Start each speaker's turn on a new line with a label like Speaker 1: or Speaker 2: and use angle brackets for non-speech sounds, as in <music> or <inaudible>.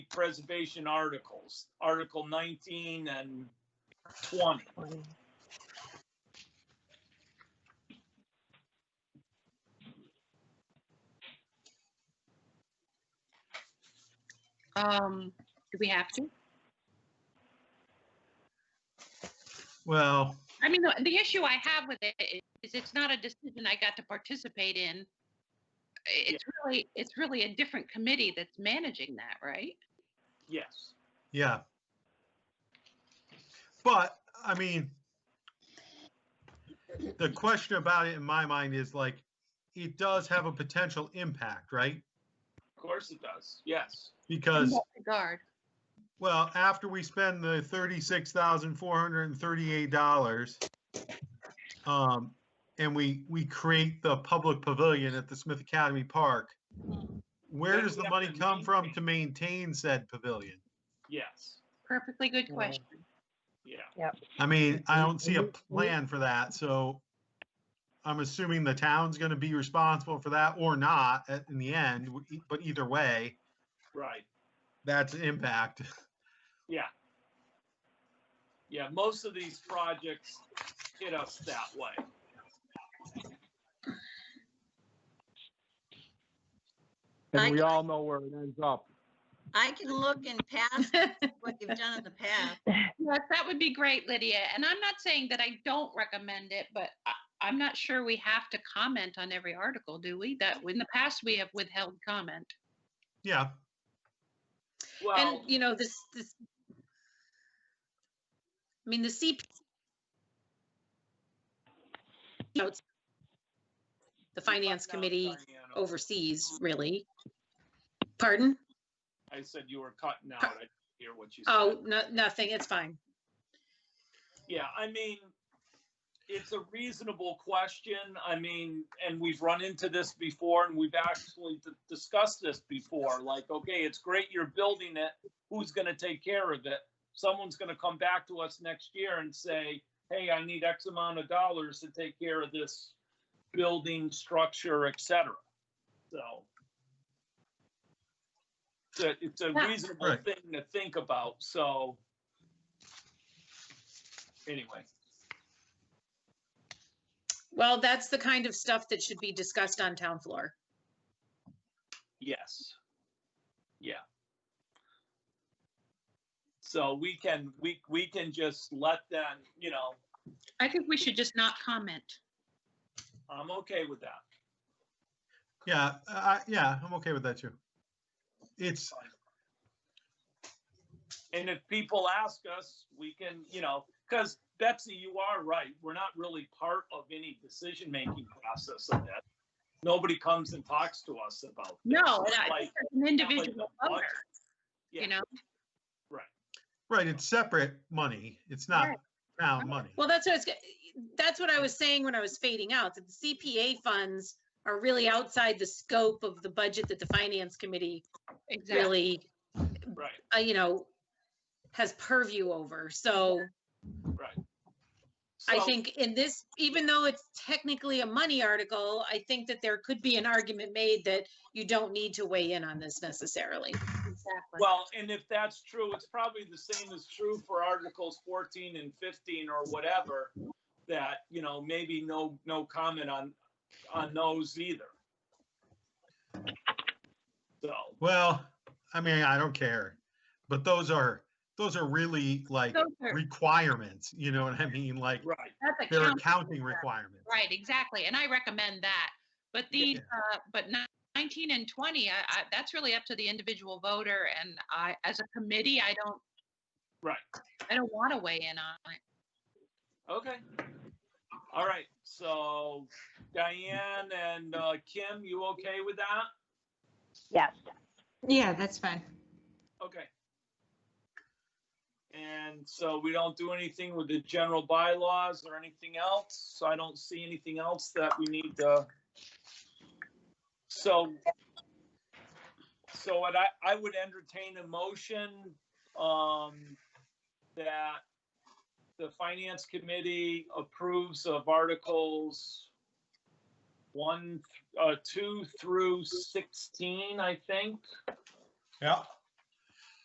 Speaker 1: preservation articles, Article 19 and 20.
Speaker 2: Um, do we have to?
Speaker 3: Well,
Speaker 2: I mean, the, the issue I have with it i- is it's not a decision I got to participate in. I- It's really, it's really a different committee that's managing that, right?
Speaker 1: Yes.
Speaker 3: yeah. But, I mean, the question about it in my mind is like, it does have a potential impact, right?
Speaker 1: Of course it does. Yes.
Speaker 2: In
Speaker 3: Because,
Speaker 2: what regard?
Speaker 3: well, after we spend the thirty-six thousand four hundred and thirty-eight dollars, um, and we, we create the public pavilion at the Smith Academy Park, where
Speaker 1: Then
Speaker 3: does
Speaker 1: we
Speaker 3: the
Speaker 1: have
Speaker 3: money
Speaker 1: to
Speaker 3: come from
Speaker 1: maintain.
Speaker 3: to maintain said pavilion?
Speaker 1: Yes.
Speaker 2: Perfectly good
Speaker 4: Yeah.
Speaker 2: question.
Speaker 1: Yeah.
Speaker 3: I mean, I don't see a plan for that, so I'm assuming the town's gonna be responsible for that or not at- in the end, w- e- but either way,
Speaker 1: Right.
Speaker 3: that's an impact. <laughs>
Speaker 1: Yeah. Yeah. Most of these projects hit us that way.
Speaker 5: I-
Speaker 4: And we all know where it ends up.
Speaker 5: I can look and pass what you've done in the past.
Speaker 2: Yes, that would be great, Lydia. And I'm not saying that I don't recommend it, but I, I'm not sure we have to comment on every article, do we? That, in the past, we have withheld comment.
Speaker 3: Yeah,
Speaker 1: Well, Oh.
Speaker 5: And, you know, this, this, I mean, the CP. you know, it's- The finance
Speaker 1: cut out,
Speaker 5: committee
Speaker 1: Diana.
Speaker 5: oversees, really. Pardon?
Speaker 1: I said you were cutting out. I didn't hear what you said.
Speaker 5: Oh, no, nothing, it's fine.
Speaker 1: Yeah, I mean, it's a reasonable question. I mean, and we've run into this before and we've actually d- discussed this before. Like, okay, it's great you're building it. Who's going to take care of it? Someone's going to come back to us next year and say, hey, I need X amount of dollars to take care of this building, structure, et cetera. So it's a- it's a
Speaker 2: Yeah.
Speaker 1: reasonable
Speaker 3: Right.
Speaker 1: thing to think about. So anyway.
Speaker 5: Well, that's the kind of stuff that should be discussed on town floor.
Speaker 1: Yes. Yeah. So we can, we, we can just let them, you know,
Speaker 2: I think we should just not comment.
Speaker 1: I'm okay with that.
Speaker 3: yeah, I, yeah, I'm okay with that too. It's,
Speaker 1: And if people ask us, we can, you know, because Betsy, you are right. We're not really part of any decision-making process of that. Nobody comes and talks to us about. this.
Speaker 2: No,
Speaker 1: It's
Speaker 2: not-
Speaker 1: like-
Speaker 2: it's an
Speaker 1: not like
Speaker 2: individual
Speaker 1: the
Speaker 2: voter,
Speaker 1: budget. Yeah.
Speaker 2: you know?
Speaker 3: right, it's separate money, it's not
Speaker 2: Right.
Speaker 3: town money.
Speaker 5: Well, that's what I was, that's what I was saying when I was fading out, that the CPA funds are really outside the scope of the budget that the finance committee
Speaker 2: Exactly.
Speaker 5: really,
Speaker 1: Right,
Speaker 5: uh, you know, has purview over. So
Speaker 1: right.
Speaker 5: I
Speaker 1: So-
Speaker 5: think in this, even though it's technically a money article, I think that there could be an argument made that you don't need to weigh in on this necessarily.
Speaker 2: Exactly.
Speaker 1: Well, and if that's true, it's probably the same is true for Articles fourteen and fifteen or whatever, that, you know, maybe no, no comment on, on those either. So,
Speaker 3: Well, I mean, I don't care, but those are, those are really like
Speaker 2: Those are-
Speaker 3: requirements, you know what I mean? Like,
Speaker 1: right,
Speaker 2: That's a
Speaker 3: they're
Speaker 2: count.
Speaker 3: accounting requirements.
Speaker 2: Right, exactly. And I recommend that. But these, uh, but ni- nineteen and twenty, I, I, that's really up to the individual voter and I, as a committee, I don't.
Speaker 1: Right.
Speaker 2: I don't want to weigh in on it.
Speaker 1: okay. All right, so Diane and uh, Kim, you okay with that?
Speaker 6: Yes.
Speaker 7: Yeah, that's fine.
Speaker 1: Okay. And so we don't do anything with the general bylaws or anything else, so I don't see anything else that we need to. So. So what I, I would entertain a motion, um, that the finance committee approves of articles one, uh, two through sixteen, I think.
Speaker 3: Yeah,